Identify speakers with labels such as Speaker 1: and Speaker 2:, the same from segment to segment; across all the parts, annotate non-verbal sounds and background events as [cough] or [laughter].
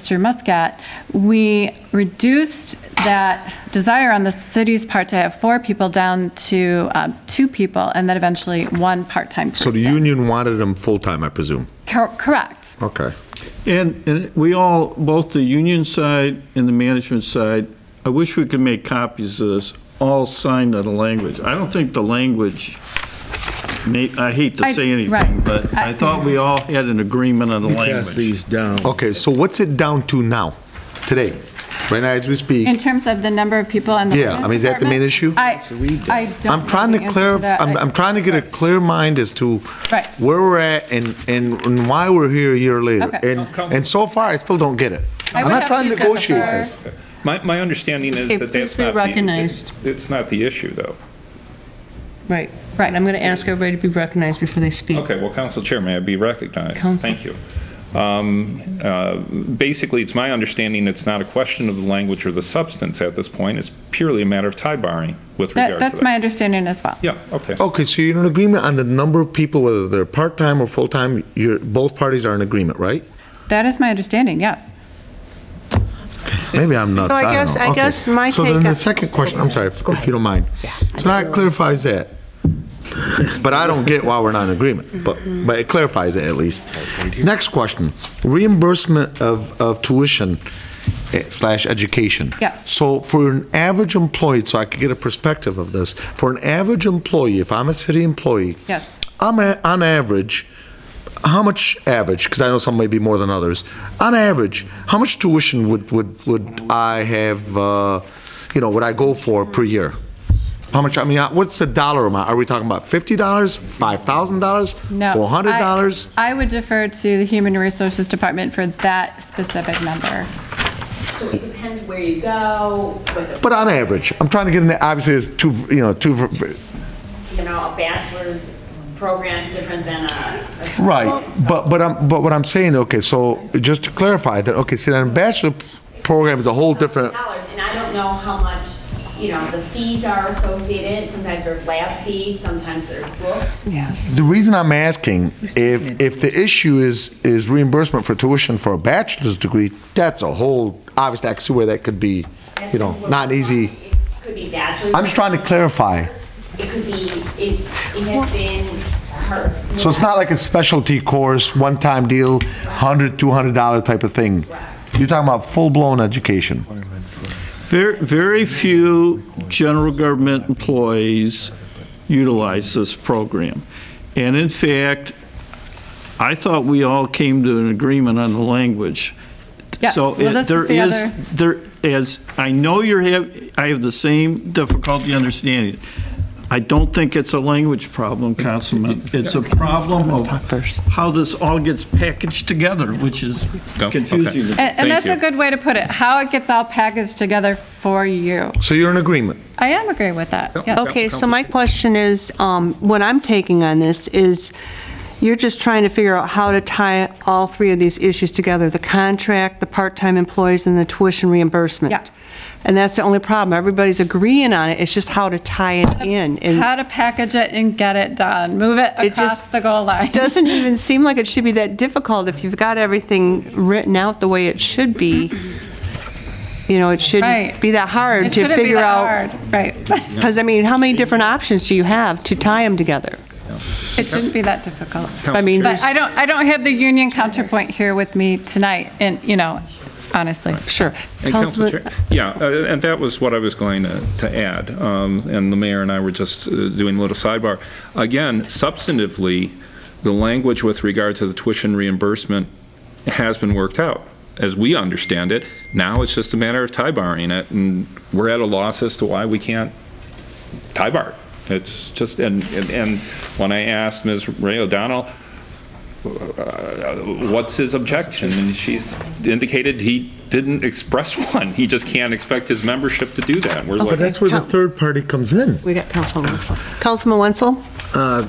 Speaker 1: Mr. Muscat, we reduced that desire on the city's part to have four people down to um, two people, and then eventually one part-time
Speaker 2: So the
Speaker 1: person.
Speaker 2: union wanted them full-time, I presume?
Speaker 1: Cor- Correct.
Speaker 2: Okay.
Speaker 3: And, and we all, both the union side and the management side, I wish we could make copies of this, all signed on the language. I don't think the language, ma- I hate to
Speaker 1: I-
Speaker 3: say anything,
Speaker 1: right.
Speaker 3: but I thought we all had an agreement on the
Speaker 4: Pass
Speaker 3: language.
Speaker 4: these down.
Speaker 2: Okay, so what's it down to now, today? Right now, as we
Speaker 1: In
Speaker 2: speak?
Speaker 1: terms of the number of people on the.
Speaker 2: Yeah, I mean, is that the main
Speaker 1: finance
Speaker 2: issue?
Speaker 1: department, I, I don't.
Speaker 2: I'm
Speaker 1: know
Speaker 2: trying
Speaker 1: the
Speaker 2: to
Speaker 1: answer
Speaker 2: clarify,
Speaker 1: that.
Speaker 2: I'm, I'm trying to get a clear mind as to
Speaker 1: Right.
Speaker 2: where we're at and, and and why we're here a year later.
Speaker 1: Okay.
Speaker 2: And, and so far, I still don't get it.
Speaker 1: I
Speaker 2: I'm
Speaker 1: would
Speaker 2: not
Speaker 1: have
Speaker 2: trying to
Speaker 1: to
Speaker 2: negotiate
Speaker 1: defer.
Speaker 2: this.
Speaker 5: My, my understanding
Speaker 6: Okay,
Speaker 5: is that
Speaker 6: please
Speaker 5: that's
Speaker 6: be
Speaker 5: not. the-
Speaker 6: recognized.
Speaker 5: It's not the issue, though.
Speaker 6: Right, right. I'm going to ask everybody to be recognized before they speak.
Speaker 5: Okay, well, Council Chair, may I be recognized?
Speaker 6: Council.
Speaker 5: Thank you. Um, uh, Basically, it's my understanding it's not a question of the language or the substance at this point. It's purely a matter of tie barring with regard to
Speaker 1: That,
Speaker 5: that.
Speaker 1: that's my understanding as well.
Speaker 5: Yeah, okay.
Speaker 2: Okay, so you're in agreement on the number of people, whether they're part-time or full-time, you're, both parties are in agreement, right?
Speaker 1: That is my understanding, yes.
Speaker 2: Maybe I'm nuts.
Speaker 6: So I
Speaker 2: don't
Speaker 6: guess-
Speaker 2: know.
Speaker 6: I
Speaker 2: Okay.
Speaker 6: guess my
Speaker 2: So then
Speaker 6: take-
Speaker 2: the second question, I'm sorry, if if you don't mind. So now it clarifies that. [laughs] But I don't get why we're not in agreement, but, but it clarifies it at least. Next question, reimbursement of, of tuition eh, slash education.
Speaker 1: Yes.
Speaker 2: So for an average employee, so I could get a perspective of this, for an average employee, if I'm a city employee.
Speaker 1: Yes.
Speaker 2: I'm a, on average, how much average? Because I know some may be more than others. On average, how much tuition would would would I have? Uh, you know, would I go for per year? How much? I mean, uh, what's the dollar amount? Are we talking about fifty dollars, five thousand dollars,
Speaker 1: No.
Speaker 2: four hundred dollars?
Speaker 1: I I would defer to the Human Resources Department for that specific number.
Speaker 7: So it depends where you go, whether,
Speaker 2: But on average, I'm trying to get an. Obviously, it's two. You know, two.
Speaker 7: you know, a bachelor's program's different than a. a-
Speaker 2: Right, but, but I'm, but what I'm saying, okay, so just to clarify that, okay, see, the bachelor program is a whole different.
Speaker 7: Dollars, and I don't know how much, you know, the fees are associated, sometimes there's lab fees, sometimes there's books.
Speaker 6: Yes.
Speaker 2: The reason I'm asking, if, if the issue is, is reimbursement for tuition for a bachelor's degree, that's a whole, obviously, I can see where that could be, you know, not easy.
Speaker 7: It could be bachelor's.
Speaker 2: I'm just trying to clarify.
Speaker 7: It could be, it, it has been her.
Speaker 2: So it's not like a specialty course, one-time deal, $100, $200 type of thing. You're talking about full-blown education.
Speaker 3: Very, very few general government employees utilize this program. And in fact, I thought we all came to an agreement on the language.
Speaker 1: Yes,
Speaker 3: So
Speaker 1: well, this
Speaker 3: it-
Speaker 1: is
Speaker 3: there
Speaker 1: the
Speaker 3: is,
Speaker 1: other-
Speaker 3: there is, I know you're have, I have the same difficulty understanding. it. I don't think it's a language problem, Councilman. It's a problem of how this all gets packaged together, which is
Speaker 5: Go, okay.
Speaker 3: confusing. to me.
Speaker 1: And- And
Speaker 5: Thank
Speaker 1: that's a
Speaker 5: you.
Speaker 1: good way to put it, how it gets all packaged together for you.
Speaker 2: So you're in agreement?
Speaker 1: I am agreeing with that, yes.
Speaker 6: Okay, so my question is, um, what I'm taking on this is, you're just trying to figure out how to tie all three of these issues together, the contract, the part-time employees, and the tuition reimbursement.
Speaker 1: Yeah.
Speaker 6: And that's the only problem. Everybody's agreeing on it, it's just how to tie it in. And
Speaker 1: How to package it and get it done, move it
Speaker 6: It
Speaker 1: across
Speaker 6: just
Speaker 1: the goal line.
Speaker 6: doesn't even seem like it should be that difficult if you've got everything written out the way it should be. You know, it
Speaker 1: Right.
Speaker 6: shouldn't be that
Speaker 1: [laughs]
Speaker 6: hard
Speaker 1: It
Speaker 6: to
Speaker 1: shouldn't be
Speaker 6: figure
Speaker 1: that
Speaker 6: out.
Speaker 1: hard, Right, [laughs]
Speaker 6: Because, I mean, how many different options do you have to tie them together?
Speaker 1: it shouldn't be that difficult.
Speaker 6: I mean,
Speaker 1: But I don't, I don't have the union counterpoint here with me tonight, and, you know, honestly.
Speaker 6: sure.
Speaker 5: And Council
Speaker 6: Councilman-
Speaker 5: Chair- Yeah, uh, and that was what I was going to to add, um, and the mayor and I were just uh, doing a little sidebar. Again, substantively, the language with regard to the tuition reimbursement has been worked out, as we understand it. Now it's just a matter of tie barring it, and we're at a loss as to why we can't tie bar it. It's just, and, and- and when I asked Ms. Ray O'Donnell, uh, what's his objection? And she's indicated he didn't express [laughs] one. He just can't expect his membership to do that. We're
Speaker 2: Oh, But
Speaker 5: like,
Speaker 2: that's where the third party comes in.
Speaker 6: We got Councilman Wenzel. Councilman Wenzel?
Speaker 4: Uh,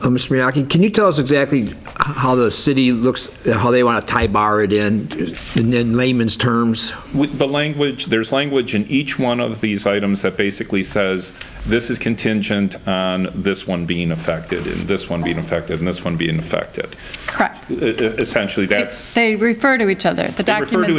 Speaker 4: Mr. Miyake, can you tell us exactly how the city looks, how they want to tie bar it in, in in layman's terms?
Speaker 5: With the language, there's language in each one of these items that basically says, this is contingent on this one being affected, and this one being affected, and this one being affected.
Speaker 1: Correct.
Speaker 5: E- e- Essentially, that's.
Speaker 1: They refer to each other. The
Speaker 5: They refer to
Speaker 1: documents